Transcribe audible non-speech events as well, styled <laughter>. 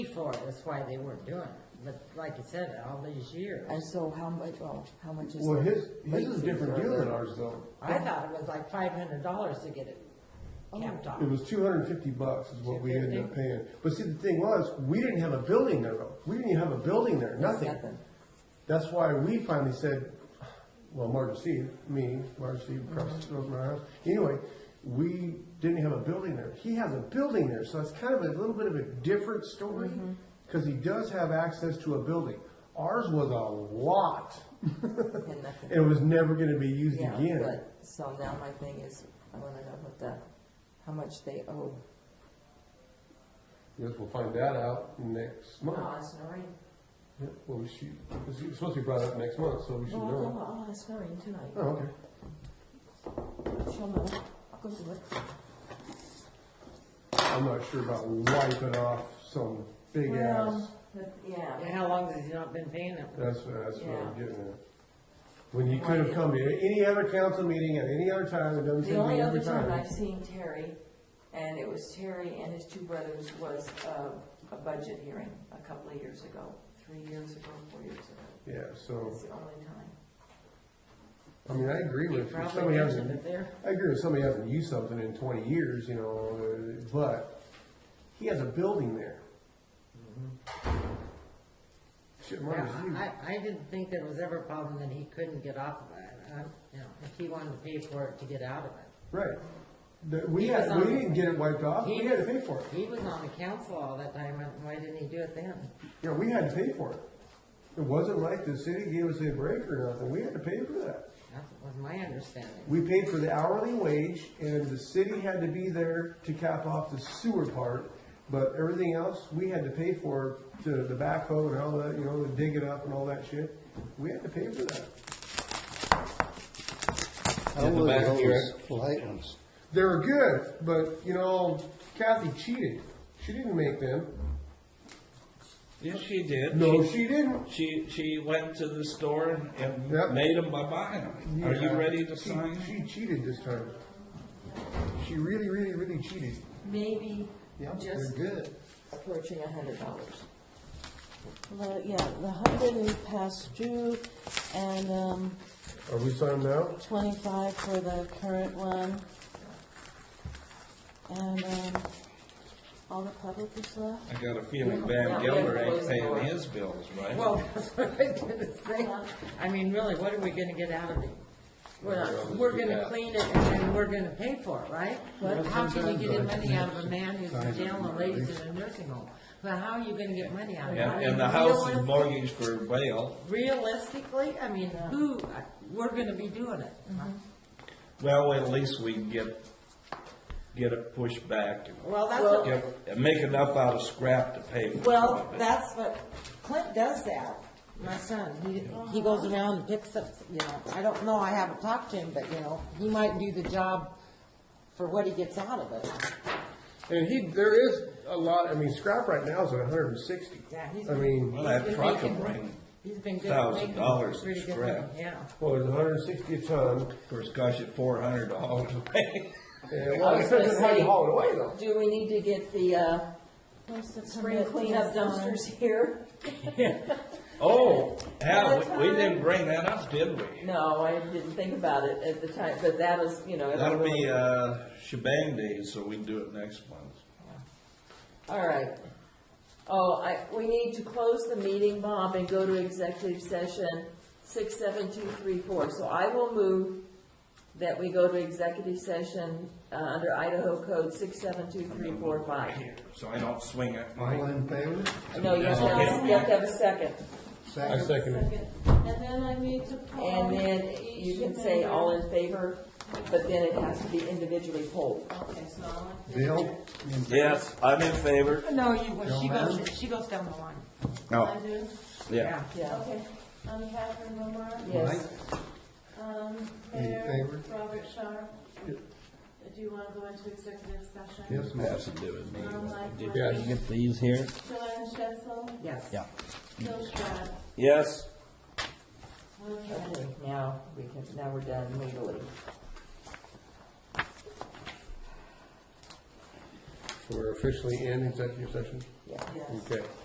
before, that's why they weren't doing it. But like you said, all these years, And so how much, well, how much is? Well, the his, his late is a fee different for deal the- than ours though. I thought it was like five hundred dollars to get it capped off. It was two hundred and fifty bucks is what we ended up 250? paying. But see, the thing was, we didn't have a building there though. We didn't even have a building there, nothing. Nothing. That's why we finally said, well, Margaret Steve, me, Margaret Steve, across Mm-hmm. the road from our house. Anyway, we didn't have a building there. He has a building there, so it's kind of a little bit of a different story. Mm-hmm. Cause he does have access to a building. Ours was a lot. And nothing. It was never gonna be used Yeah, again. but, so now my thing is, I wanna know what the, how much they owe. Yes, we'll find that out next month. it's Noreen. Yeah, Well, we should, it's supposed to be brought up next month, so we should know. I'll ask Noreen tonight. Oh, okay. She'll know. I'll go do it. I'm not sure about wiping off some big ass. Yeah. And how long has he not been paying it? That's, that's what I'm Yeah. getting at. When you could have come to any other council meeting at any other time, it doesn't seem The to be only every other time time. I've seen Terry, and it was Terry and his two brothers, was uh, a budget hearing a couple of years ago, three years ago, four years ago. Yeah, so, It's the only time. I mean, I agree He with, if probably somebody mentioned it hasn't, there. I agree with somebody hasn't used something in twenty years, you know, uh, but he has a building there. Shit, Mm-hmm. Yeah, Marcus, you- I, I didn't think there was ever a problem that he couldn't get off of it. I, you know, if he wanted to pay for it to get out of it. Right. That we He had, was on- we didn't get it wiped off, we He had to was- pay for it. He was on the council all that time, and why didn't he do it then? Yeah, we had to pay for it. It wasn't like the city gave us a break or nothing, we had to pay for that. That was my understanding. We paid for the hourly wage and the city had to be there to cap off the sewer part, but everything else, we had to pay for to the backhoe and all that, you know, to dig it up and all that shit. We had to pay for that. How In the were back those here. light ones? They were good, but you know, Kathy cheated. She didn't make them. Yes, she did. No, She, she didn't. she, she went to the store and- Yep. and made them by buying. Are you Yeah. ready to She- sign? She cheated this time. She really, really, really cheated. Maybe Yeah, just they're good. approaching a hundred dollars. The, yeah, the hundred is past due, and, um, Are we signed now? twenty-five for the current one. And, um, all the public is left. I got a feeling Van Gelder ain't paying his bills, right? Well, <laughs> that's what I was gonna say. I mean, really, what are we gonna get out of it? We're, not- we're gonna clean it and then we're gonna pay for it, right? But how can you get money out of a man who's in jail and lays in a nursing home? But how are you gonna get money out of it? I And, mean, and the house is realistic- mortgaged for bail. Realistically, I mean, who, we're gonna be doing it. Well, at least we can get, get it pushed back and Well, that's what. get- and make enough out of scrap to pay for some Well, of it. that's what, Clint does that. My son, he, he goes around and picks up, you know, I don't know, I haven't talked to him, but, you know, he might do the job for what he gets out of it. And he, there is a lot, I mean, scrap right now is at hundred and sixty. Yeah, he's I been- mean, Well, that He's been truck will making- bring, He's been good. at Thousand making dollars in pretty good scrap. money, Yeah. well, it's hundred and sixty a ton. of course, gosh, at four hundred dollars a pay. <laughs> And, well, it was gonna depends on how you say- haul it away though. Do we need to get the, uh, Where's the spring permit cleanup fees on? dumpsters here? Oh, yeah, we, we didn't bring that up, did we? No, I didn't think about it at the time, but that was, you know. it That'll really- be, uh, shebang days, so we can do it next month. All right. Oh, I, we need to close the meeting, Bob, and go to executive session six, seven, two, three, four. So I will move that we go to executive session, uh, under Idaho Code six, seven, two, three, four, five. So I don't swing it. All in favor? No, you have to, you have to have a second. I Second. second it. And then I need to call. And then you each can say vendor. all in favor, but then it has to be individually polled. Okay, so I'll have to- Bill? in favor? Yes, I'm in favor. Oh, No, you, she Don't goes, she goes down the line. I do? Yeah. Yeah, Okay, I'm Catherine Lamar. yes. Um, In Mayor favor? Robert Sharp. Do you want to go into executive session? Yes, ma'am. Has to do with me. Um, like Did my- you get these here? Joanne Schessel, Yes. Yeah. Bill Schrader. Yes. Okay. Okay, now we can, now we're done legally. So we're officially in executive session? Yeah. Okay.